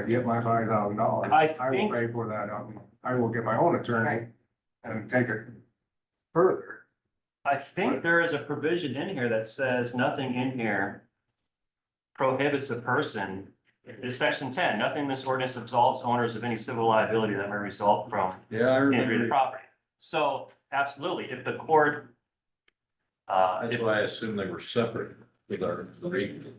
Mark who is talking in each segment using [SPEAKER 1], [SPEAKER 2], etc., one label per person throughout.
[SPEAKER 1] I get my five thousand dollars,
[SPEAKER 2] I
[SPEAKER 1] I will
[SPEAKER 2] think-
[SPEAKER 1] pay for that, um, I will get my own attorney and take it further.
[SPEAKER 2] I think there is a provision in here that says nothing in here prohibits a person, it's section ten, nothing in this ordinance absolves owners of any civil liability that may result from
[SPEAKER 3] Yeah, I
[SPEAKER 2] injury to
[SPEAKER 3] remember.
[SPEAKER 2] property. So absolutely, if the court uh,
[SPEAKER 3] That's
[SPEAKER 2] if-
[SPEAKER 3] why I assumed they were separate with our reading.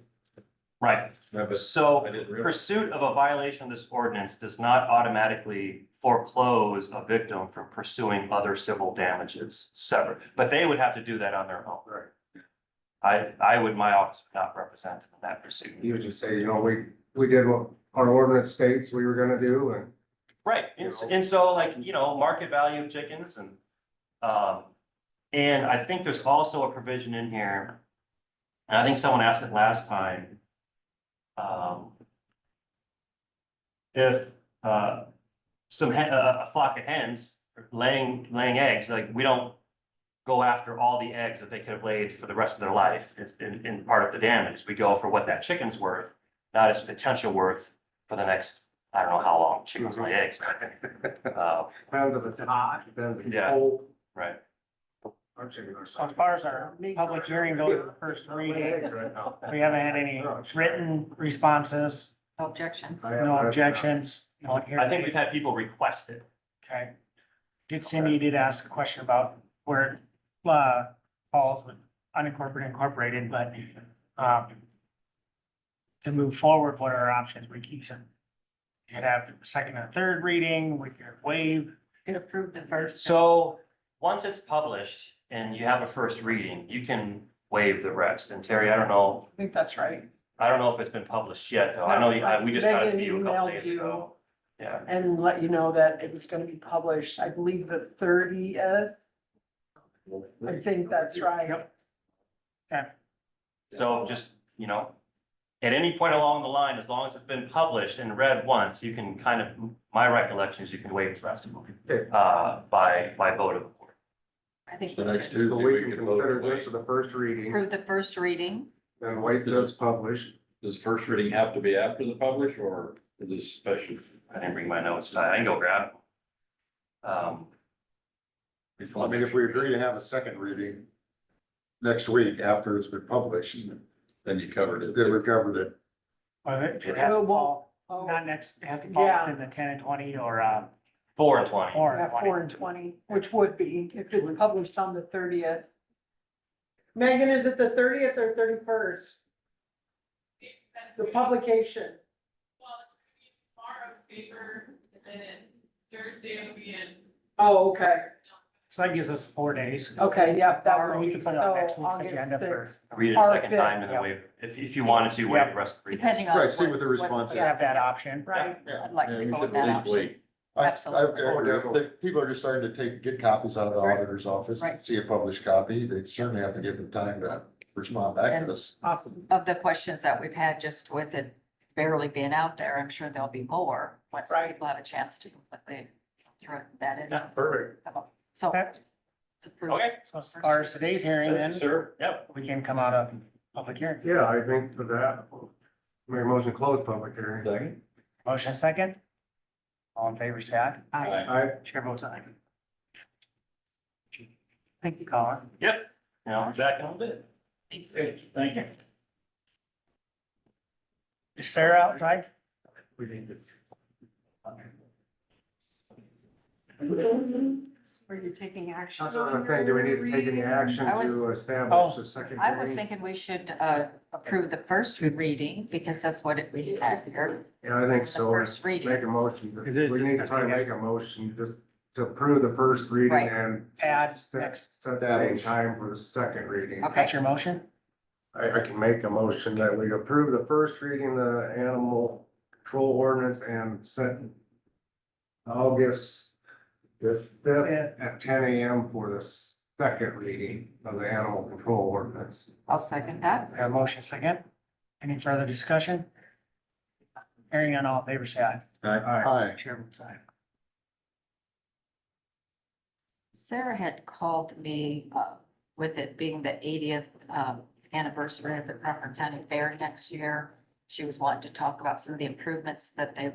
[SPEAKER 2] right,
[SPEAKER 3] I was-
[SPEAKER 2] so
[SPEAKER 3] I didn't realize.
[SPEAKER 2] pursuit of a violation of this ordinance does not automatically foreclose a victim from pursuing other civil damages separate, but they would have to do that on their own.
[SPEAKER 1] Right.
[SPEAKER 2] I, I would, my office would not represent them in that pursuit.
[SPEAKER 1] You would just say, you know, we, we did what our ordinance states we were gonna do and
[SPEAKER 2] Right, and, s- and so like, you know, market value of chickens and, um, and I think there's also a provision in here. And I think someone asked it last time. Um. If, uh, some, hen- a a flock of hens laying, laying eggs, like, we don't. Go after all the eggs that they could have laid for the rest of their life, in- in, in part of the damage, we go for what that chicken's worth, not its potential worth for the next I don't know how long chickens lay eggs. but, uh,
[SPEAKER 1] depends if it's hot, depends if it's
[SPEAKER 2] Yeah.
[SPEAKER 1] cold.
[SPEAKER 2] Right.
[SPEAKER 1] Our chicken are
[SPEAKER 4] So As far as our public hearing goes, the first reading, we haven't had any written responses,
[SPEAKER 5] Objections.
[SPEAKER 4] no objections, no one here.
[SPEAKER 2] I think we've had people request it.
[SPEAKER 4] Okay. Did Cindy did ask a question about where, uh, falls with unincorporated, incorporated, but, um, to move forward, what are our options? We keep some, you could have a second and a third reading, we could waive.
[SPEAKER 5] Could approve the first.
[SPEAKER 2] So once it's published and you have a first reading, you can waive the rest. And Terry, I don't know,
[SPEAKER 6] I think that's right.
[SPEAKER 2] I don't know if it's been published yet, though. I know you- I- we just got it to you a couple days ago. Yeah,
[SPEAKER 6] And let you know that it was gonna be published, I believe the thirtieth. I think that's right.
[SPEAKER 2] so just, you know, at any point along the line, as long as it's been published and read once, you can kind of, my recollection is you can waive the rest of
[SPEAKER 1] Okay.
[SPEAKER 2] it uh, by, by vote of the board.
[SPEAKER 5] I think
[SPEAKER 3] The next
[SPEAKER 5] we
[SPEAKER 1] So
[SPEAKER 3] Tuesday,
[SPEAKER 1] we
[SPEAKER 3] we
[SPEAKER 1] can
[SPEAKER 3] can vote
[SPEAKER 1] consider
[SPEAKER 3] away.
[SPEAKER 1] this as the first reading,
[SPEAKER 5] approve the first reading.
[SPEAKER 1] then wait till it's published.
[SPEAKER 3] Does first reading have to be after the publish or is this special?
[SPEAKER 2] I didn't bring my notes. I I can go grab. them. Um,
[SPEAKER 7] I mean, if we agree to have a second reading next week after it's been published,
[SPEAKER 3] Then you covered it.
[SPEAKER 7] then we've covered it.
[SPEAKER 4] Or it it has to fall,
[SPEAKER 6] Oh,
[SPEAKER 4] not next, it has to fall
[SPEAKER 6] Yeah.
[SPEAKER 4] within the ten and twenty or, uh,
[SPEAKER 2] Four and twenty.
[SPEAKER 4] or
[SPEAKER 6] yeah,
[SPEAKER 4] twenty.
[SPEAKER 6] four and twenty, which would be if it's published on the thirtieth. Megan, is it the thirtieth or thirty-first? The publication,
[SPEAKER 8] Well, it's gonna be tomorrow's paper, and then Thursday will be in.
[SPEAKER 6] oh, okay,
[SPEAKER 4] So that gives us four days.
[SPEAKER 6] okay, yep, that
[SPEAKER 4] Or we
[SPEAKER 6] would
[SPEAKER 4] could
[SPEAKER 6] be,
[SPEAKER 4] put
[SPEAKER 6] so
[SPEAKER 4] it on next week's
[SPEAKER 6] August
[SPEAKER 4] agenda for-
[SPEAKER 6] sixth.
[SPEAKER 2] Read it a
[SPEAKER 6] Or
[SPEAKER 2] second
[SPEAKER 6] fifth,
[SPEAKER 2] time and then
[SPEAKER 4] yeah.
[SPEAKER 2] waive, if, if you wanted to, waive the rest of the readings.
[SPEAKER 5] Depending on.
[SPEAKER 7] Right, see what the response is.
[SPEAKER 4] Have that option.
[SPEAKER 6] Right,
[SPEAKER 5] I'd like
[SPEAKER 3] Yeah, we
[SPEAKER 5] to go with
[SPEAKER 3] should at
[SPEAKER 5] that
[SPEAKER 3] least
[SPEAKER 5] option.
[SPEAKER 3] wait.
[SPEAKER 7] I- I-
[SPEAKER 5] Absolutely.
[SPEAKER 7] I wonder if the- People are just starting to take, get copies out of the
[SPEAKER 6] Right.
[SPEAKER 7] auditor's office, and
[SPEAKER 5] Right.
[SPEAKER 7] see a published copy, they certainly have to give them time to respond back to us.
[SPEAKER 6] awesome,
[SPEAKER 5] Of the questions that we've had, just with it barely being out there, I'm sure there'll be more once
[SPEAKER 6] Right.
[SPEAKER 5] people have a chance to completely throw that in.
[SPEAKER 2] Yeah,
[SPEAKER 1] Perfect.
[SPEAKER 5] So.
[SPEAKER 4] Okay.
[SPEAKER 5] it's approved.
[SPEAKER 2] Okay,
[SPEAKER 4] So as far as today's hearing, then
[SPEAKER 3] Sir?
[SPEAKER 2] yep,
[SPEAKER 4] we can come out of public hearing.
[SPEAKER 1] Yeah, I think for that, make a motion to close public hearing.
[SPEAKER 3] Second?
[SPEAKER 4] Motion second. All in favor, say aye.
[SPEAKER 5] Aye.
[SPEAKER 1] I,
[SPEAKER 4] Chair votes aye. Thank you, Colin.
[SPEAKER 2] you know, back in a little bit.
[SPEAKER 3] Thank you.
[SPEAKER 4] Is Sarah outside?
[SPEAKER 1] we need to.
[SPEAKER 5] Were you taking action?
[SPEAKER 1] That's what I'm thinking, do we need to take any action
[SPEAKER 5] I was-
[SPEAKER 1] to
[SPEAKER 4] Oh,
[SPEAKER 1] establish the second
[SPEAKER 5] I was
[SPEAKER 1] reading?
[SPEAKER 5] thinking we should uh, approve the first reading because that's what it- we had here.
[SPEAKER 1] Yeah, I think so.
[SPEAKER 5] The first reading.
[SPEAKER 1] Make a motion,
[SPEAKER 4] It is-
[SPEAKER 1] we need to try and make a motion just to approve the first reading
[SPEAKER 5] Right.
[SPEAKER 1] and.
[SPEAKER 4] Add
[SPEAKER 1] Set
[SPEAKER 4] next.
[SPEAKER 1] set that in time for the second reading.
[SPEAKER 5] Okay.
[SPEAKER 4] That's your motion?
[SPEAKER 1] I, I can make a motion that we approve the first reading, the animal control ordinance and set August the fifth at ten AM for the second reading of the animal control ordinance.
[SPEAKER 5] I'll second that.
[SPEAKER 4] We have a motion second. Any further discussion? Hearing on all in favor, say aye.
[SPEAKER 1] Aye.
[SPEAKER 7] Hi,
[SPEAKER 4] Chair votes aye.
[SPEAKER 5] Sarah had called me uh, with it being the eightieth um, anniversary of the Crawford County Fair next year. She was wanting to talk about some of the improvements that they